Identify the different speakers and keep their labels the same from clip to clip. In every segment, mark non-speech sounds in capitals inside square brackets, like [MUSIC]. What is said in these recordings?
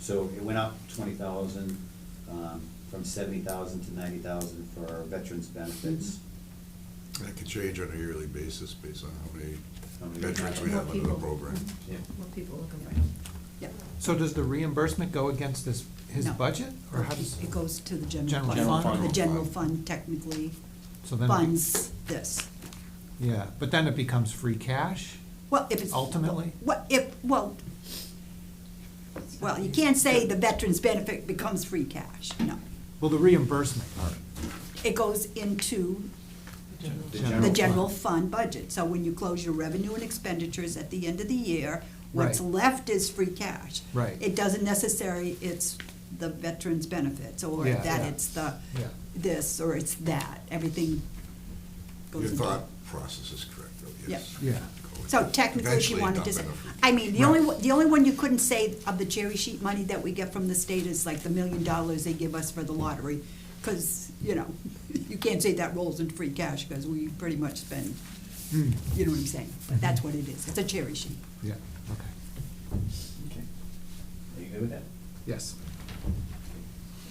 Speaker 1: So it went up twenty thousand, um, from seventy thousand to ninety thousand for our veterans benefits.
Speaker 2: That can change on a yearly basis based on how many
Speaker 1: How many-
Speaker 2: veterans we
Speaker 3: More
Speaker 2: have under the
Speaker 3: people.
Speaker 2: program.
Speaker 1: Yeah.
Speaker 3: More people looking for help.
Speaker 4: Yep.
Speaker 5: So does the reimbursement go against this, his
Speaker 4: No.
Speaker 5: budget, or how does?
Speaker 4: It goes to the
Speaker 5: General
Speaker 4: general.
Speaker 5: General fund?
Speaker 4: The
Speaker 5: fund.
Speaker 4: general fund technically
Speaker 5: So then it be-
Speaker 4: funds this.
Speaker 5: Yeah, but then it becomes free cash?
Speaker 4: Well, if it's.
Speaker 5: Ultimately?
Speaker 4: What, if, well, well, you can't say the veterans benefit becomes free cash, no.
Speaker 5: Well, the reimbursement part,
Speaker 4: It goes into
Speaker 1: General
Speaker 4: the
Speaker 1: fund.
Speaker 4: general fund budget. So when you close your revenue and expenditures at the end of the year, what's
Speaker 5: Right.
Speaker 4: left is free cash.
Speaker 5: Right.
Speaker 4: It doesn't necessarily, it's the veterans benefits, or
Speaker 5: Yeah, yeah.
Speaker 4: that it's the,
Speaker 5: Yeah.
Speaker 4: this, or it's that, everything goes
Speaker 2: Your
Speaker 4: into.
Speaker 2: thought process is correct, though, yes.
Speaker 5: Yeah. Yeah.
Speaker 4: So technically, if you
Speaker 2: Eventually,
Speaker 4: wanted
Speaker 2: not
Speaker 4: to say,
Speaker 2: benefit.
Speaker 4: I mean, the only,
Speaker 5: Right.
Speaker 4: one- the only one you couldn't say of the cherry sheet money that we get from the state is like the million dollars they give us for the lottery, because, you know, [LAUGHS] you can't say that rolls into free cash, because we pretty much spend,
Speaker 5: Hmm.
Speaker 4: you know what I'm saying? But that's what it is, it's a cherry sheet.
Speaker 5: yeah, okay,
Speaker 1: Okay. Are you good with that?
Speaker 5: yes.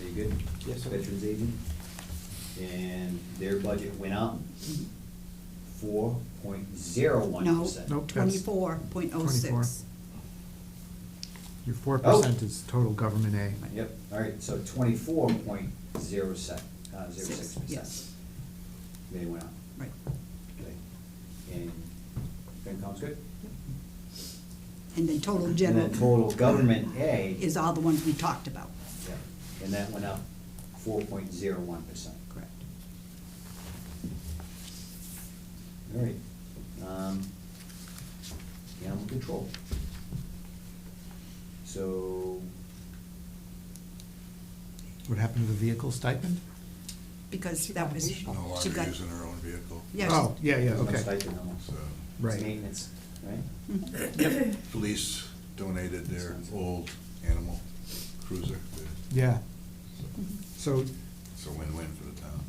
Speaker 1: Are you good? Yes. Veterans agent, and their budget went up four point zero one
Speaker 4: No,
Speaker 1: percent.
Speaker 5: Nope, that's-
Speaker 4: twenty-four point oh
Speaker 5: 24.
Speaker 4: six.
Speaker 5: Your four percent is total government aid.
Speaker 1: Oh. Yep, all right, so twenty-four point zero sec, uh, zero
Speaker 4: Six,
Speaker 1: six percent.
Speaker 4: yes.
Speaker 1: They went up.
Speaker 4: Right.
Speaker 1: Okay. And FinCom's good?
Speaker 4: And then total general.
Speaker 1: And the total government A.
Speaker 4: Is all the ones we talked about.
Speaker 1: Yeah, and that went up four point zero one percent.
Speaker 4: Correct.
Speaker 1: All right. Um, Animal control. So,
Speaker 5: What happened to the vehicle stipend?
Speaker 4: Because that was,
Speaker 2: No
Speaker 4: she
Speaker 2: longer
Speaker 4: got.
Speaker 2: using her own vehicle.
Speaker 4: Yeah, she-
Speaker 5: Oh, yeah, yeah,
Speaker 1: there's no
Speaker 5: okay.
Speaker 1: stipend almost.
Speaker 2: So,
Speaker 5: Right.
Speaker 1: Maintenance, right?
Speaker 2: police donated their old animal cruiser. to-
Speaker 5: Yeah,
Speaker 2: so
Speaker 4: Mhm.
Speaker 5: so,
Speaker 2: It's a win-win for the town.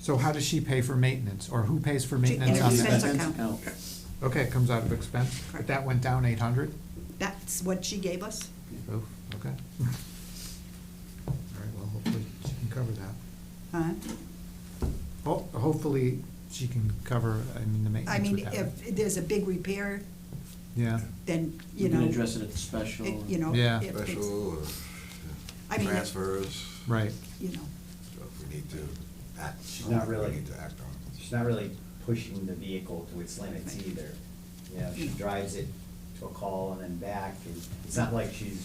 Speaker 5: so how does she pay for maintenance, or who pays for maintenance
Speaker 4: It's
Speaker 5: on
Speaker 4: expense
Speaker 5: that?
Speaker 4: account.
Speaker 5: Okay, it comes out of expense, but
Speaker 4: Correct.
Speaker 5: that went down eight hundred?
Speaker 4: That's what she gave us.
Speaker 5: Oh, okay. All right, well, hopefully she can cover that.
Speaker 4: Huh?
Speaker 5: Ho- Hopefully she can cover, I mean, the
Speaker 4: I
Speaker 5: maintenance.
Speaker 4: mean,
Speaker 5: would happen.
Speaker 4: if there's a big repair,
Speaker 5: Yeah,
Speaker 4: then, you
Speaker 6: You
Speaker 4: know.
Speaker 6: can address it at the special.
Speaker 4: it- You know.
Speaker 5: Yeah.
Speaker 4: if it's-
Speaker 2: Special or
Speaker 4: I
Speaker 2: yeah,
Speaker 4: mean, it-
Speaker 2: transfers.
Speaker 5: right,
Speaker 4: You know,
Speaker 2: So if we need to act.
Speaker 1: She's not
Speaker 2: on it, we
Speaker 1: really-
Speaker 2: need to act on it.
Speaker 1: She's not really pushing the vehicle to its limits either. You know, she drives it to a call and then back, and it's not like she's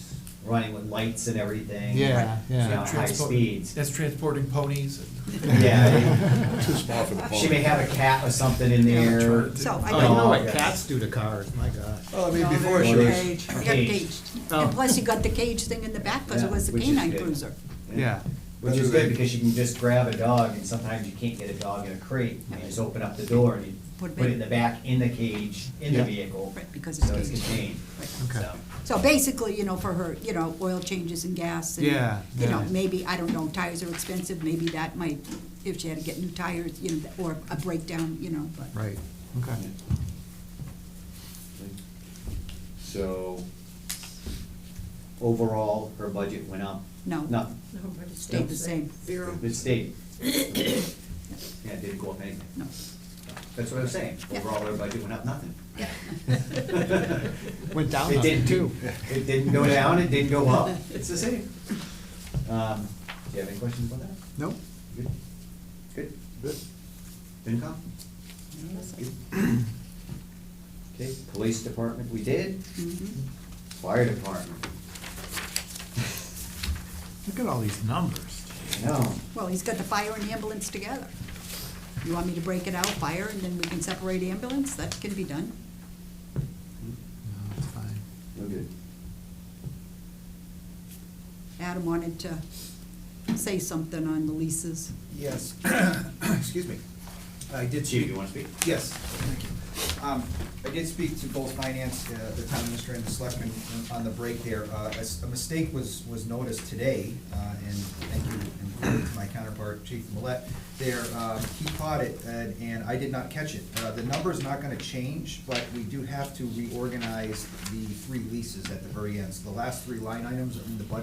Speaker 1: running with lights and everything.
Speaker 5: Yeah,
Speaker 1: you
Speaker 5: yeah.
Speaker 1: know, high
Speaker 7: Transport-
Speaker 1: speeds.
Speaker 7: That's transporting ponies and.
Speaker 1: [LAUGHS] Yeah.
Speaker 2: [LAUGHS] Too small for the
Speaker 1: She may
Speaker 2: pony.
Speaker 1: have a cat or something in there.
Speaker 7: Yeah.
Speaker 4: so I
Speaker 5: Oh, you know
Speaker 4: don't.
Speaker 1: Oh,
Speaker 5: what
Speaker 1: yes.
Speaker 5: cats do to cars, my God.
Speaker 2: Well, Oh, I mean,
Speaker 3: No, they-
Speaker 2: before she
Speaker 1: Well,
Speaker 2: was.
Speaker 1: there's-
Speaker 4: Got
Speaker 1: Caged.
Speaker 4: caged. And plus you got the cage thing in the back because
Speaker 1: Oh. Yeah,
Speaker 4: it was a
Speaker 1: which is
Speaker 4: canine
Speaker 1: good.
Speaker 4: cruiser.
Speaker 5: Yeah,
Speaker 1: Which is good, because you can just grab a dog, and sometimes you can't get a dog in a crate, and you just open up the door, and you
Speaker 4: Put it
Speaker 1: put it in
Speaker 4: in.
Speaker 1: the back, in the cage, in the
Speaker 5: Yeah.
Speaker 1: vehicle.
Speaker 4: Right, because it's
Speaker 1: So it's
Speaker 4: caged.
Speaker 1: contained,
Speaker 4: Right.
Speaker 5: Okay.
Speaker 1: so.
Speaker 4: So basically, you know, for her, you know, oil changes and gas and,
Speaker 5: Yeah,
Speaker 4: you know,
Speaker 5: yeah.
Speaker 4: maybe, I don't know, tires are expensive, maybe that might, if she had to get new tires, you know, or a breakdown, you know, but.
Speaker 5: right, okay.
Speaker 1: So, overall, her budget went up?
Speaker 4: No.
Speaker 1: Nothing,
Speaker 4: Stayed the same.
Speaker 3: Zero.
Speaker 1: it stayed. Yeah, it didn't go up anything.
Speaker 4: No.
Speaker 1: That's what I'm saying,
Speaker 4: Yeah.
Speaker 1: overall, her budget went up nothing.
Speaker 4: Yeah.
Speaker 5: Went down
Speaker 1: It
Speaker 5: on it
Speaker 1: didn't-
Speaker 5: too.
Speaker 1: It didn't go down, it didn't go
Speaker 4: [LAUGHS]
Speaker 1: up, it's the same. Um, do you have any questions about that?
Speaker 5: Nope,
Speaker 1: Good, good, good. FinCom? Good. Okay, police department, we did,
Speaker 4: Mhm.
Speaker 1: fire department,
Speaker 5: look at all these numbers.
Speaker 1: no,
Speaker 4: Well, he's got the fire and ambulance together. You want me to break it out, fire, and then we can separate ambulance? That can be done.
Speaker 5: No, it's fine.
Speaker 1: no good.
Speaker 4: Adam wanted to say something on the leases.
Speaker 8: Yes, [COUGHS] excuse me. I did
Speaker 1: Chief,
Speaker 8: speak,
Speaker 1: you wanna speak?
Speaker 8: yes, thank you. Um, I did speak to both finance, uh, the town administrator and the selectmen on the break there. Uh, A s- a mistake was, was noticed today, uh, and thank you, and to my counterpart, Chief Millet, there, um, he caught it, and and I did not catch it. Uh, The number's not gonna change, but we do have to reorganize the three leases at the very end. So the last three line items in the budget